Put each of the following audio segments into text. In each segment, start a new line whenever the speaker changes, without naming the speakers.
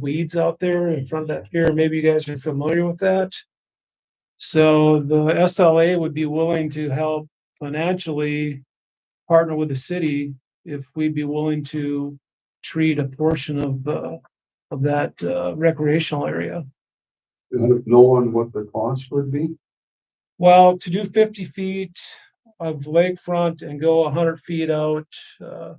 weeds out there in front of that pier. Maybe you guys are familiar with that. So the SLA would be willing to help financially partner with the city if we'd be willing to treat a portion of the, of that uh, recreational area.
Is it knowing what the cost would be?
Well, to do fifty feet of lakefront and go hundred feet out, uh,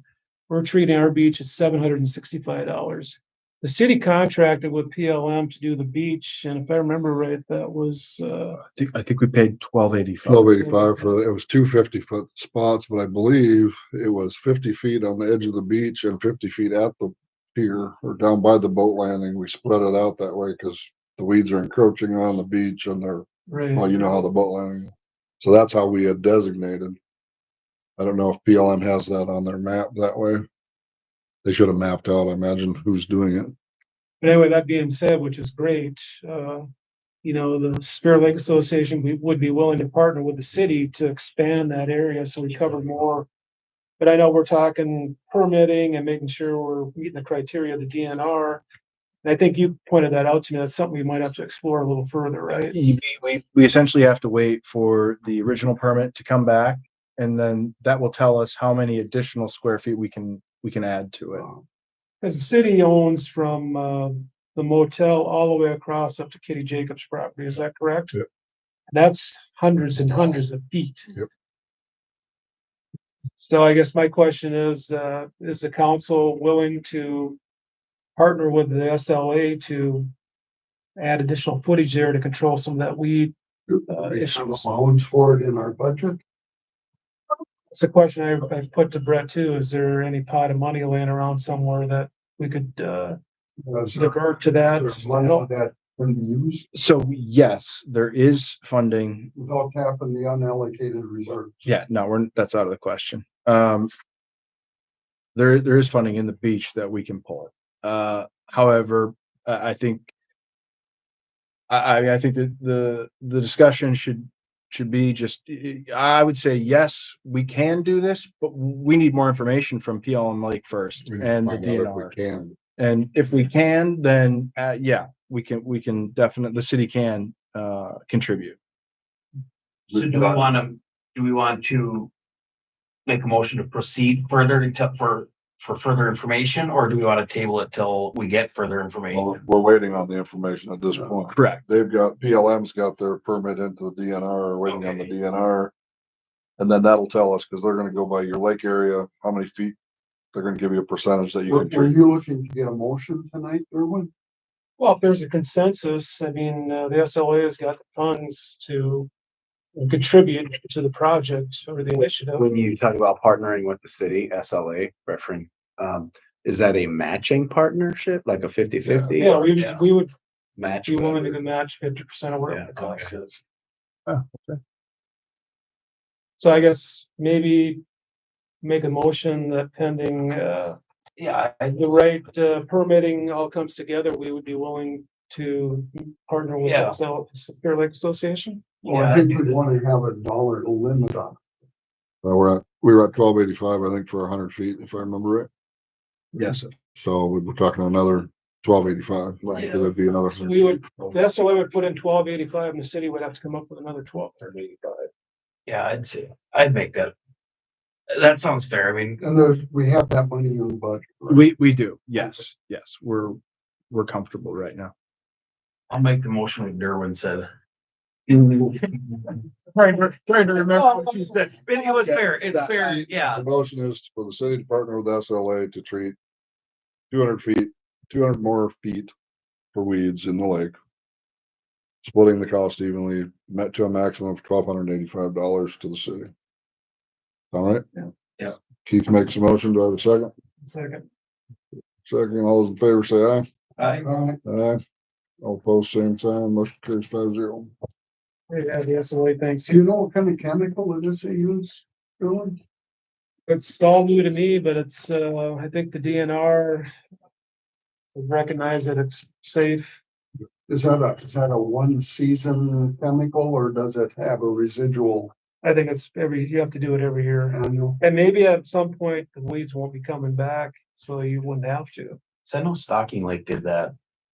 we're treating our beach at seven hundred and sixty-five dollars. The city contracted with PLM to do the beach, and if I remember right, that was, uh,
I think, I think we paid twelve eighty-five.
Twelve eighty-five for, the- it was two fifty foot spots, but I believe it was fifty feet on the edge of the beach and fifty feet at the pier or down by the boat landing. We split it out that way because the weeds are encroaching on the beach and they're, well,
right,
you know how the boat landing. is. So that's how we had designated. I don't know if PLM has that on their map that way. They should have mapped out, I imagine, who's doing it.
but anyway, that being said, which is great, uh, you know, the Spirit Lake Association, we would be willing to partner with the city to expand that area so we cover more. But I know we're talking permitting and making sure we're meeting the criteria of the DNR. And I think you pointed that out to me. That's something we might have to explore a little further, right?
We, we, we essentially have to wait for the original permit to come back and then that will tell us how many additional square feet we can, we can add to it.
Because the city owns from, uh, the motel all the way across up to Kitty Jacobs property. Is that correct?
Yep.
That's hundreds and hundreds of feet.
Yep.
So I guess my question is, uh, is the council willing to partner with the SLA to add additional footage there to control some of that weed?
Do
Uh,
we
yes.
have allowance for it in our budget?
It's a question I, I've put to Brett too. Is there any pot of money laying around somewhere that we could, uh,
Is there-
divert to that?
is there money That can be used
So yes, there is funding.
without tapping the unallocated reserves.
Yeah, no, we're, that's out of the question. Um, there, there is funding in the beach that we can pull. Uh, however, I, I think I, I, I think that the, the discussion should, should be just, I would say, yes, we can do this, but we need more information from PLM Lake first
We need to
and the
find out if we
DNR.
Can.
And if we can, then, uh, yeah, we can, we can definitely, the city can, uh, contribute.
So do we want to, do we want to make a motion to proceed further to, for, for further information, or do we want to table it till we get further
Well,
information?
We're waiting on the information at this point.
Correct.
they've got, PLM's got their permit into the DNR, or waiting on the
Okay.
DNR. And then that'll tell us, because they're gonna go by your lake area, how many feet, they're gonna give you a percentage that you
Were
can
were
treat.
you looking to get a motion tonight, Erwin?
Well, if there's a consensus, I mean, uh, the SLA has got the funds to contribute to the project or the initiative.
when you talk about partnering with the city, SLA, referring, um, is that a matching partnership, like a fifty fifty
Yeah, we,
Yeah.
we would
match?
be willing to
whatever?
match fifty percent of whatever
Yeah,
the cost is.
Oh,
So I guess maybe make a motion that pending, uh,
Yeah, I,
the right uh, permitting all comes together, we would be willing to partner with
Yeah.
the Sal- Superior Lake Association.
Or I
yeah,
think we'd want to have a dollar limit on.
Well, Uh, we're at, we were at twelve eighty-five, I think, for hundred feet, if I remember it. Mm-hmm.
Yes.
So we were talking another twelve eighty-five,
Right.
so that'd be another. 100
We would,
feet.
that's the way we put in twelve eighty-five and the city would have to come up with another twelve eighty-five.
yeah, I'd say, I'd make that. That sounds fair. I mean,
And there's, we have that money in the budget. right?
We, we do. Yes, yes. We're, we're comfortable right now.
I'll make the motion what Derwin said.
Trying to, trying to remember.
But it was fair, it's fair, yeah,
The motion is for the city to partner with SLA to treat two hundred feet, two hundred more feet for weeds in the lake. Splitting the cost evenly, met to a maximum of twelve hundred and eighty-five dollars to the city. All right?
Yeah.
Yeah.
Keith makes a motion. Do I have a second?
Second.
Second, all those in favor say aye.
I,
Alright,
Aye. All opposed, same sign. Motion carries five zero.
Great idea, SLA, thanks.
do you know what kind of chemical it is they use, Erwin?
It's all new to me, but it's, uh, I think the DNR has recognized that it's safe.
Is that a, is that a one season chemical or does it have a residual
I think it's every, you have to do it every year.
annual?
And maybe at some point, the weeds won't be coming back, so you wouldn't have to.
so I know Stocking Lake did that